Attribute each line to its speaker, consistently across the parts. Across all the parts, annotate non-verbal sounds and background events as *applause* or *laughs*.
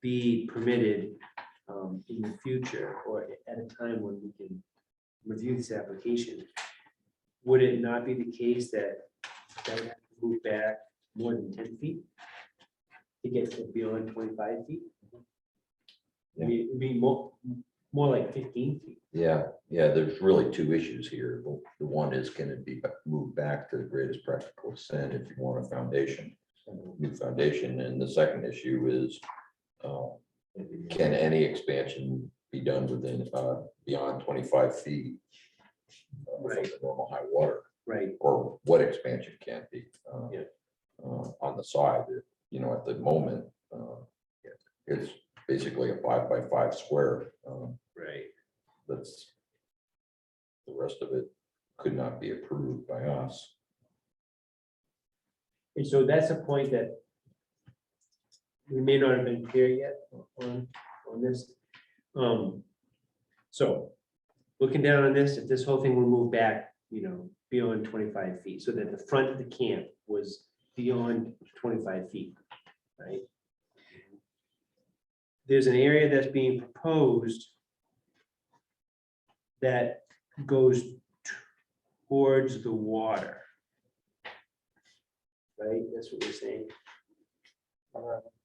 Speaker 1: be permitted um, in the future or at a time when we can review this application, would it not be the case that that would have to move back more than ten feet? To get to beyond twenty-five feet? I mean, it'd be more, more like fifteen feet.
Speaker 2: Yeah, yeah, there's really two issues here. The- The one is can it be ba- moved back to the greatest practical extent if you want a foundation, new foundation, and the second issue is uh, can any expansion be done within uh, beyond twenty-five feet uh, from
Speaker 1: Right.
Speaker 2: the normal high water,
Speaker 1: Right,
Speaker 2: or what expansion can be uh,
Speaker 1: Yeah.
Speaker 2: uh, on the side, you know, at the moment, uh, it's basically a five by five square. um,
Speaker 1: right.
Speaker 2: that's. The rest of it could not be approved by us.
Speaker 1: And so that's a point that we may not have been clear yet on, on this. Um, so, looking down on this, if this whole thing were moved back, you know, beyond twenty-five feet, so that the front of the camp was beyond twenty-five feet, right? There's an area that's being proposed that goes towards the water right? That's what we're saying.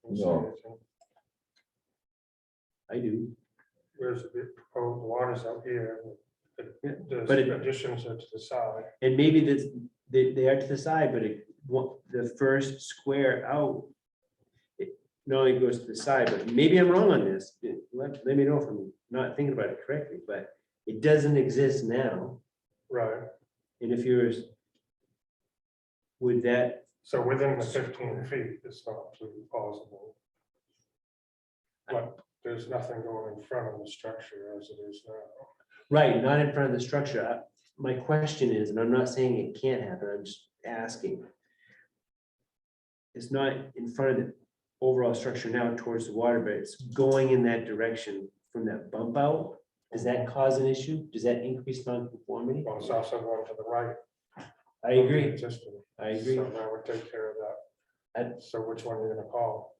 Speaker 2: No.
Speaker 1: I do,
Speaker 3: Where's the big proposed waters out here? the-
Speaker 1: Yeah, but it-
Speaker 3: The additions are to the side.
Speaker 1: and maybe this, they, they are to the side, but it, what, the first square out. It not only goes to the side, but maybe I'm wrong on this, let, let me know if I'm not thinking about it correctly, but it doesn't exist now,
Speaker 3: Right,
Speaker 1: and if yours. Would that,
Speaker 3: so within the fifteen feet, it's not absolutely possible. But there's nothing going in front of the structure as it is now.
Speaker 1: right, not in front of the structure, I- my question is, and I'm not saying it can't happen, I'm just asking. It's not in front of the overall structure now towards the water, but it's going in that direction from that bump out. Does that cause an issue? Does that increase non-conformity?
Speaker 3: Well, it's also going to the right.
Speaker 1: I agree,
Speaker 3: Just,
Speaker 1: I agree.
Speaker 3: so that would take care of
Speaker 1: I-
Speaker 3: that. So which one are you gonna call?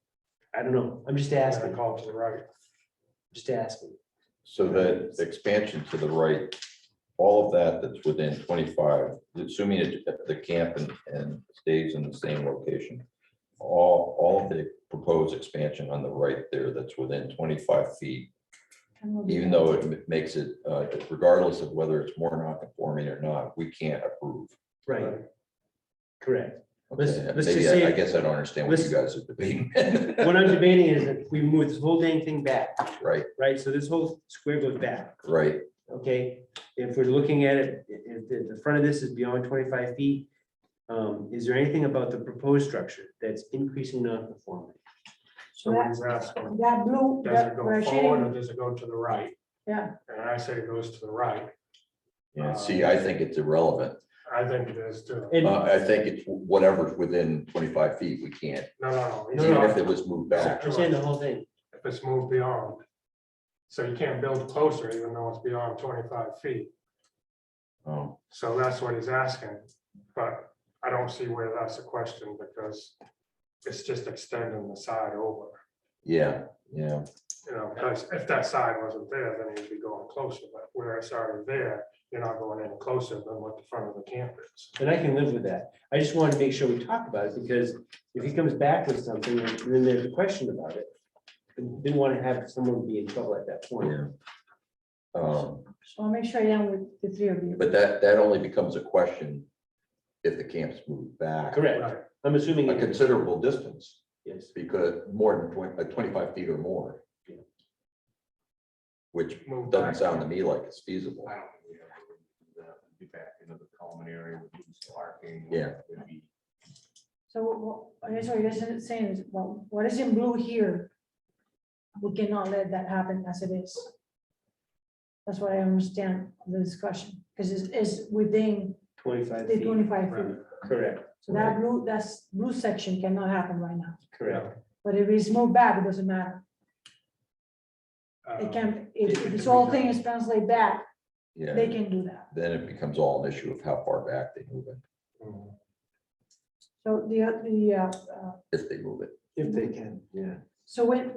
Speaker 1: I don't know, I'm just
Speaker 3: You're gonna
Speaker 1: asking,
Speaker 3: Call to the right.
Speaker 1: just asking.
Speaker 2: So that expansion to the right, all of that that's within twenty-five, assuming it, that the camp and, and stays in the same location. All, all of the proposed expansion on the right there that's within twenty-five feet, even though it ma- makes it, uh, regardless of whether it's more non-conforming or not, we can't approve.
Speaker 1: Right, correct. Let's-
Speaker 2: Okay,
Speaker 1: let's
Speaker 2: Maybe
Speaker 1: just
Speaker 2: I- I
Speaker 1: say-
Speaker 2: guess I don't understand what you guys are debating. *laughs*
Speaker 1: What I'm debating is if we move this whole dang thing back,
Speaker 2: Right,
Speaker 1: right? So this whole square goes back.
Speaker 2: right.
Speaker 1: okay? If we're looking at it, i- if the, the front of this is beyond twenty-five feet, um, is there anything about the proposed structure that's increasing non-conformity?
Speaker 3: So when you ask, them,
Speaker 4: That blue,
Speaker 3: does it
Speaker 4: that we're
Speaker 3: go forward or
Speaker 4: shading,
Speaker 3: does it go to the right?
Speaker 4: yeah,
Speaker 3: And I say it goes to the right.
Speaker 2: Yeah,
Speaker 5: Oh,
Speaker 2: see, I think it's irrelevant.
Speaker 3: I think it is too.
Speaker 1: And,
Speaker 2: Uh, I think it's whatever's within twenty-five feet, we can't,
Speaker 3: No, no, no.
Speaker 2: even
Speaker 3: no.
Speaker 2: if it was moved back.
Speaker 1: I'm saying the whole thing,
Speaker 3: if it's moved beyond. So you can't build closer even though it's beyond twenty-five feet.
Speaker 2: Oh,
Speaker 3: So that's what he's asking, but I don't see where that's a question because it's just extending the side over,
Speaker 2: yeah, yeah,
Speaker 3: you know, because if that side wasn't there, then you'd be going closer, but where it's already there, you're not going any closer than what the front of the camp is.
Speaker 1: and I can live with that. I just wanted to make sure we talk about it, because if he comes back with something, and then there's a question about it. I Didn't want to have someone be in trouble at that point.
Speaker 2: yeah. Um,
Speaker 4: so I'll make sure I am with the three of you.
Speaker 2: but that, that only becomes a question if the camp's moved back.
Speaker 1: Correct,
Speaker 3: Right,
Speaker 1: I'm assuming,
Speaker 2: A
Speaker 1: it-
Speaker 2: considerable distance,
Speaker 1: yes,
Speaker 2: because more than twenty, like twenty-five feet or more.
Speaker 1: Yeah.
Speaker 2: Which
Speaker 3: Move back.
Speaker 2: doesn't sound to me like it's feasible.
Speaker 5: I don't think we ever would do that. We'd Be back into the common area with people parking.
Speaker 2: Yeah.
Speaker 5: It'd be-
Speaker 4: So what, here's what you're saying, is, well, what is in blue here? We cannot let that happen as it is. That's what I understand the discussion, because it's, it's within
Speaker 1: twenty-five
Speaker 4: the
Speaker 1: feet,
Speaker 4: twenty-five feet.
Speaker 3: right.
Speaker 1: correct,
Speaker 4: So that blue, that's blue section cannot happen right now,
Speaker 1: correct.
Speaker 4: but if it's moved back, it doesn't matter. It
Speaker 3: Um,
Speaker 4: can, if,
Speaker 3: it
Speaker 4: if this
Speaker 3: can
Speaker 4: whole
Speaker 3: be
Speaker 4: thing
Speaker 3: done.
Speaker 4: is translated back, they
Speaker 2: Yeah,
Speaker 4: can do that.
Speaker 2: then it becomes all an issue of how far back they move it,
Speaker 3: mm,
Speaker 4: So the, the, uh, uh,
Speaker 2: if they move it.
Speaker 1: If they can, yeah.
Speaker 4: so when,